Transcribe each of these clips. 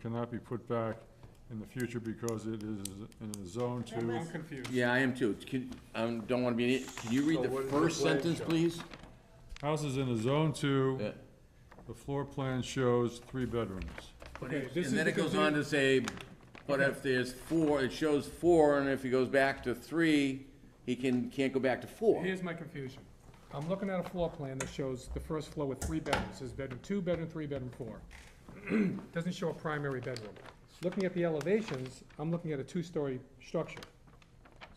cannot be put back in the future because it is in a zone two. I'm confused. Yeah, I am too. Can, I don't wanna be, an i- can you read the first sentence, please? House is in a zone two, Yeah. the floor plan shows three bedrooms. Okay, this is And then the it goes on to say, but if there's four, it shows four, and if he goes back to three, he can, can't go back to four. Here's my confusion. I'm looking at a floor plan that shows the first floor with three bedrooms, there's bedroom two, bedroom three, bedroom four. Doesn't show a primary bedroom. Looking at the elevations, I'm looking at a two-story structure.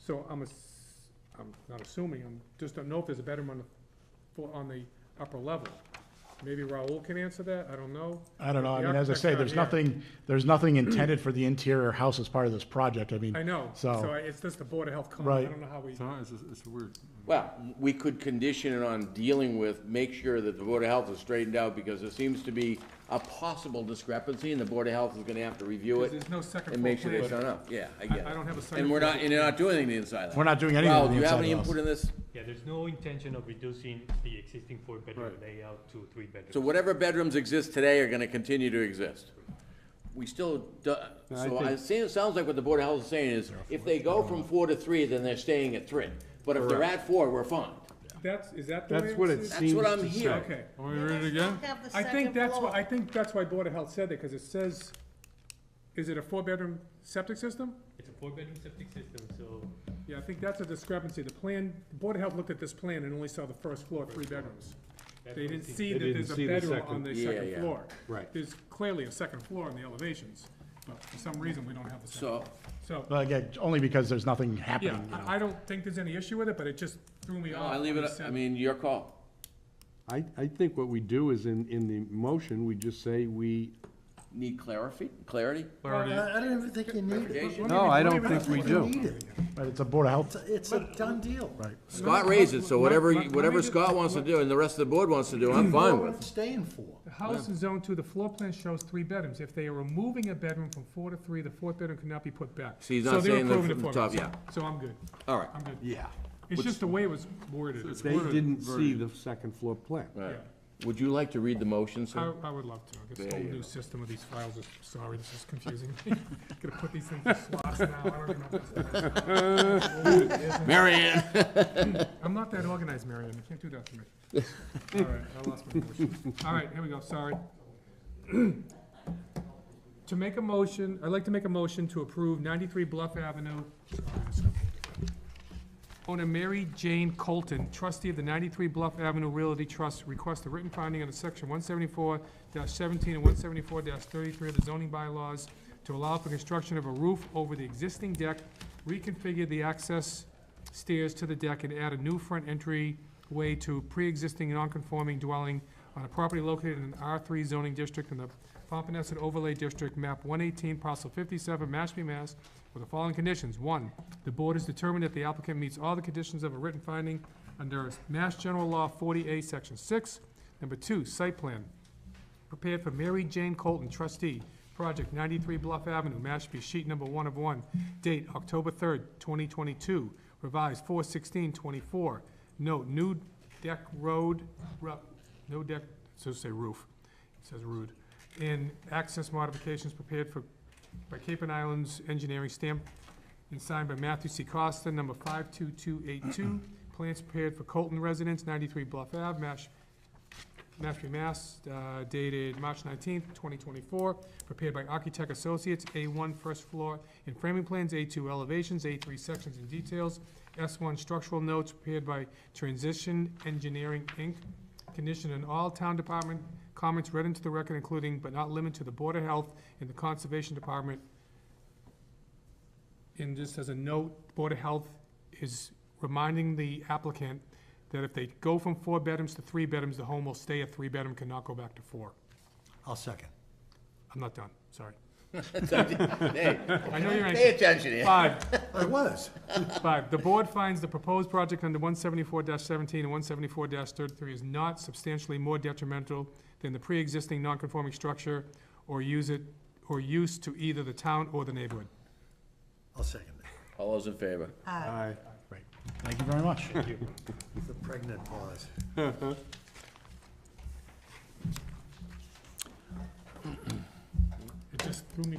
So I'm ass- I'm not assuming, I'm, just don't know if there's a bedroom on the, floor on the upper level. Maybe Raul can answer that, I don't know. I don't know, I The mean, as I architect's say, not there's here. nothing, there's nothing intended for the interior house as part of this project, I mean. I know, so I- So, it's just the Board of Health comment, Right. I don't know how we, It's not- It's, it's weird. Well, we could condition it on dealing with, make sure that the Board of Health is straightened out, because there seems to be a possible discrepancy, and the Board of Health is gonna have to review it there's no second and floor make sure plan. they turn up. Yeah, I get it. I don't have a second And we're floor. not, and you're not doing anything inside that. We're not doing anything Raoul, on the do you have inside any of the input in this? Yeah, there's no intention of reducing the existing four-bedroom layout to three bedrooms. So whatever bedrooms exist today are gonna continue to exist. We still, do- so I see, it sounds like what the Board of Health is saying is, if they go from four to three, then they're staying at three. But if they're at four, we're fine. that's, is that the way That's what it's- it That's what Seems I'm to hearing. Okay. Want me to read it again? I think that's why, I think that's why Board of Health said that, because it says, is it a four-bedroom septic system? It's a four-bedroom septic system, so Yeah, I think that's a discrepancy. The plan, Board of Health looked at this plan and only saw the first floor, three bedrooms. that's They what didn't it is. see They that didn't there's a see the bedroom second- on the Yeah, second yeah. floor. Right. There's clearly a second floor in the elevations, but for some reason, we don't have the second. So, So, but again, only because there's nothing yeah, happening, you know. I I don't think there's any issue with it, but it just threw me off. I leave when it, he said- I mean, your call. I, I think what we do is in, in the motion, we just say we. Need clarity, clarity? I I don't even think you need it. Clarification? Let me read- let me read the- we You need it. But it's a Board of Health, It's a- It's a done deal. right. Scott raised it, so whatever, Let- let- let me whatever just- Scott wants to do and the rest of the board wants to do, I'm What fine we're with. staying for. The house in zone two, the floor plan shows three bedrooms. If they are removing a bedroom from four to three, the fourth bedroom cannot be put back. So he's not So they're saying the approving f- four top, bedrooms. So I'm good, All right. I'm good. Yeah. It's just the way it was worded. It's They worded didn't see very- the second floor plan. All right. Would you like to read the motion, I, sir? I would love to. This There whole you new go. system of these files is, sorry, this is confusing. Gonna put these things in slots now. I don't even know if that's- Mary Ann? I'm not that organized, Marion. You can't do that to me. All right, I lost my motion. All right, here we go, sorry. To make a motion, I'd like to make a motion to approve ninety-three Bluff Avenue. Owner Mary Jane Colton, trustee of the ninety-three Bluff Avenue Realty Trust, request a written finding under section one seventy-four seventeen and one seventy-four thirty-three of the zoning bylaws to allow for construction of a roof over the existing deck, reconfigure the access stairs to the deck and add a new front entryway to pre-existing non-conforming dwelling on a property located in an R3 zoning district in the Pompanesett Overlay District, map 118, parcel 57, Mashpee, Mass, with the following conditions. One, the board has determined that the applicant meets all the conditions of a written finding under Mass General Law 40A, Section 6. Number two, site plan prepared for Mary Jane Colton, trustee, project 93 Bluff Avenue, Mashpee, sheet number one of one, date October 3rd, 2022, revised 4/16/24. Note, new deck road, ru- no deck, it says say roof, it says rude, and access modifications prepared for, by Cape and Islands Engineering stamp and signed by Matthew C. Costa, number 52282. Plans prepared for Colton residents, 93 Bluff Ave, Mash, Mashpee, Mass, uh, dated March 19th, 2024, prepared by Architect Associates, A1 first floor and framing plans, A2 elevations, A3 sections and details, S1 structural notes prepared by Transition Engineering, Inc., conditioned on all town department comments read into the record, including but not limited to the Board of Health and the Conservation Department. And just as a note, Board of Health is reminding the applicant that if they go from four bedrooms to three bedrooms, the home will stay a three-bedroom, cannot go back to four. I'll second. I'm not done, sorry. Hey, I know you're Pay anxious. attention here. Five, I was. Five, the board finds the proposed project under one seventy-four seventeen and one seventy-four thirty-three is not substantially more detrimental than the pre-existing non-conforming structure or use it, or use to either the town or the neighborhood. I'll second it. All those in favor? Aye. Thank you very much. It's a pregnant pause. It just just threw me